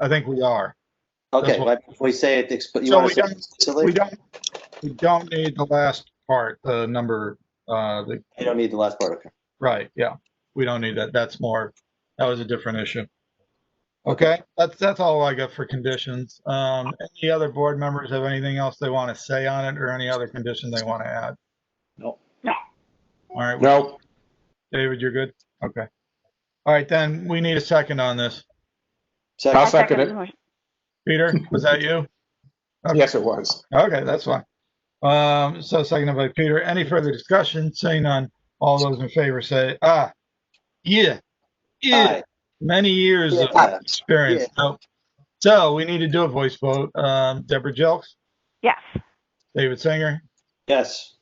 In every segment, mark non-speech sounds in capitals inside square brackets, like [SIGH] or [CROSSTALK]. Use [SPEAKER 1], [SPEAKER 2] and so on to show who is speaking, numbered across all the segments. [SPEAKER 1] I think we are.
[SPEAKER 2] Okay,
[SPEAKER 1] That's what-
[SPEAKER 2] but before we say it, expl- you
[SPEAKER 1] So
[SPEAKER 2] want
[SPEAKER 1] we
[SPEAKER 2] to say
[SPEAKER 1] don't-
[SPEAKER 2] it
[SPEAKER 1] We
[SPEAKER 2] explicitly?
[SPEAKER 1] don't, we don't need the last part, the number, uh, the,
[SPEAKER 2] You don't need the last part, okay.
[SPEAKER 1] right, yeah. We don't need that. That's more, that was a different issue. Okay, that's, that's all I got for conditions. Um, any other board members have anything else they want to say on it or any other condition they want to add?
[SPEAKER 3] No.
[SPEAKER 4] No.
[SPEAKER 1] All right,
[SPEAKER 2] No,
[SPEAKER 1] David, you're good? Okay. All right, then, we need a second on this.
[SPEAKER 2] second,
[SPEAKER 3] second it.
[SPEAKER 4] the motion.
[SPEAKER 1] Peter, was that you?
[SPEAKER 3] Yes, it was.
[SPEAKER 1] Okay, that's fine. Um, so seconded by Peter. Any further discussion? Seeing none. All those in favor say, ah, yeah, yeah.
[SPEAKER 2] aye.
[SPEAKER 1] Many years of
[SPEAKER 2] Yeah.
[SPEAKER 1] experience. So, so we need to do a voice vote. Um, Deborah Jelks,
[SPEAKER 4] Yes,
[SPEAKER 1] David Singer,
[SPEAKER 2] Yes,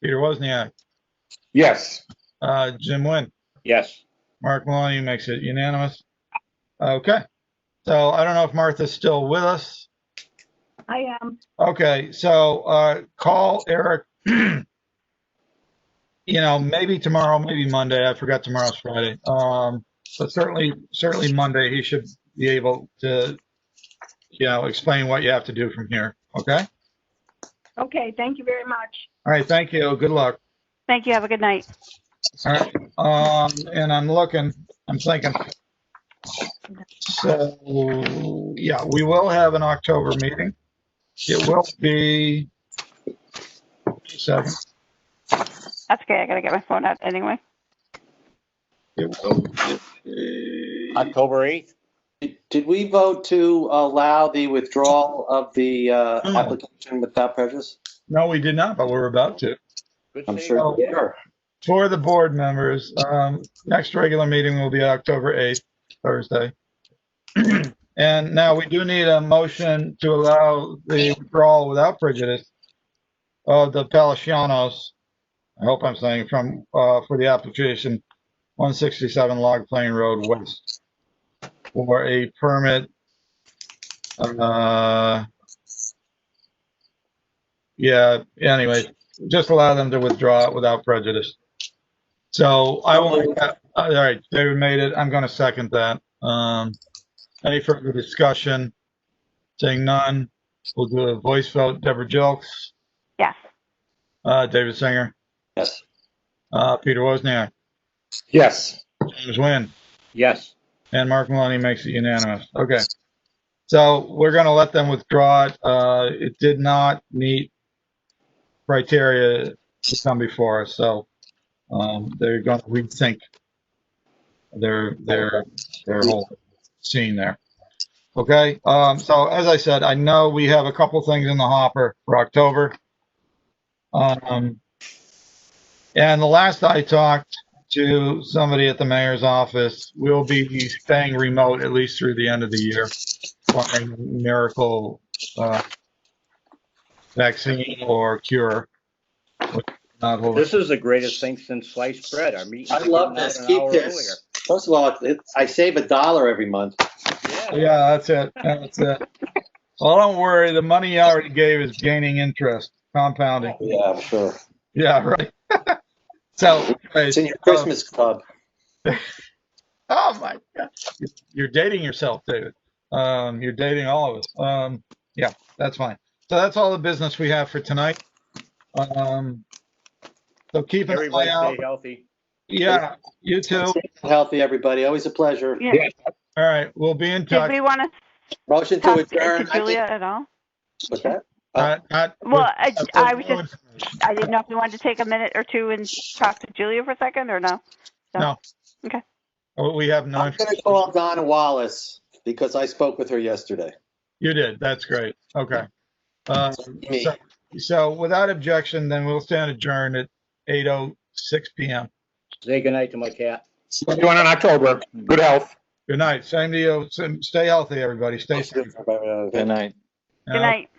[SPEAKER 1] Peter Wozniak,
[SPEAKER 3] Yes.
[SPEAKER 1] uh, Jim Nguyen.
[SPEAKER 3] Yes.
[SPEAKER 1] Mark Maloney makes it unanimous. Okay. So I don't know if Martha's still with us.
[SPEAKER 4] I am.
[SPEAKER 1] Okay, so uh, call Eric. [CLEARS THROAT] You know, maybe tomorrow, maybe Monday. I forgot tomorrow's Friday. Um, but certainly, certainly Monday, he should be able to, you know, explain what you have to do from here. Okay?
[SPEAKER 4] Okay, thank you very much.
[SPEAKER 1] All right, thank you. Good luck.
[SPEAKER 4] Thank you, have a good night.
[SPEAKER 1] All right. Um, and I'm looking, I'm thinking. So, yeah, we will have an October meeting. It will be seven.
[SPEAKER 4] That's okay, I gotta get my phone out anyway.
[SPEAKER 1] It will
[SPEAKER 5] October 8th?
[SPEAKER 2] Did- did we vote to allow the withdrawal of the uh,
[SPEAKER 1] No.
[SPEAKER 2] application without prejudice?
[SPEAKER 1] No, we did not, but we're about to.
[SPEAKER 5] Good
[SPEAKER 2] I'm
[SPEAKER 5] save.
[SPEAKER 2] sure.
[SPEAKER 1] No. For the board members, um, next regular meeting will be October 8th, Thursday. [CLEARS THROAT] And now we do need a motion to allow the withdrawal without prejudice of the Palacianos, I hope I'm saying from, uh, for the application 167 Log Plain Road West for a permit. Uh, yeah, anyway, just allow them to withdraw it without prejudice. So I will make that, all right, David made it. I'm going to second that. Um, any further discussion? Saying none, we'll do a voice vote. Deborah Jelks,
[SPEAKER 4] Yes,
[SPEAKER 1] uh, David Singer,
[SPEAKER 2] Yes,
[SPEAKER 1] uh, Peter Wozniak,
[SPEAKER 3] Yes.
[SPEAKER 1] James Nguyen,
[SPEAKER 5] Yes,
[SPEAKER 1] and Mark Maloney makes it unanimous. Okay. So we're going to let them withdraw it. Uh, it did not meet criteria to come before us, so, um, they're going to rethink their, their, their whole scene there. Okay, um, so as I said, I know we have a couple things in the hopper for October. Um, and the last I talked to somebody at the mayor's office, we'll be staying remote at least through the end of the year. Barring miracle, uh, vaccine or cure. which is not holy-
[SPEAKER 5] this is the greatest thing since sliced bread. Our meeting.
[SPEAKER 2] I love this.
[SPEAKER 5] an
[SPEAKER 2] Keep
[SPEAKER 5] hour
[SPEAKER 2] this. First of all, it- it- I save a dollar every month.
[SPEAKER 5] earlier. Yeah.
[SPEAKER 1] Yeah, that's it. That's it. Well, don't worry. The money you already gave is gaining interest, compounding.
[SPEAKER 2] Yeah, I'm sure.
[SPEAKER 1] Yeah, right. [LAUGHS] so,
[SPEAKER 2] It's
[SPEAKER 1] uh,
[SPEAKER 2] in your Christmas club.
[SPEAKER 1] oh my God, you're dating yourself, David. Um, you're dating all of us. Um, yeah, that's fine. So that's all the business we have for tonight. Um, so keep an
[SPEAKER 5] Everybody
[SPEAKER 1] eye out.
[SPEAKER 5] stay healthy.
[SPEAKER 1] Yeah, you too.
[SPEAKER 2] Healthy, everybody. Always a pleasure.
[SPEAKER 4] yeah.
[SPEAKER 3] Yeah.
[SPEAKER 1] All right, we'll be in
[SPEAKER 4] Did
[SPEAKER 1] touch.
[SPEAKER 4] we want to
[SPEAKER 2] Motion to
[SPEAKER 4] talk to-
[SPEAKER 2] adjourn.
[SPEAKER 4] to Julia at all?
[SPEAKER 2] What's that?
[SPEAKER 1] Uh, not-
[SPEAKER 4] Well, I, I was just,
[SPEAKER 1] just
[SPEAKER 4] I didn't know if you wanted to take a minute or two and talk to Julia for a second, or no?
[SPEAKER 1] We have no.
[SPEAKER 2] I'm going to call Donna Wallace because I spoke with her yesterday.
[SPEAKER 1] You did. That's great. Okay. Um,
[SPEAKER 2] Me.
[SPEAKER 1] so, so without objection, then we'll stand adjourned at 8:06 PM.
[SPEAKER 5] Say goodnight to my cat.
[SPEAKER 3] We're doing in October. Good health.
[SPEAKER 1] Good night. Same to you. Same- Stay healthy, everybody. Stay safe.
[SPEAKER 2] Good
[SPEAKER 4] Good
[SPEAKER 1] Uh,
[SPEAKER 4] night.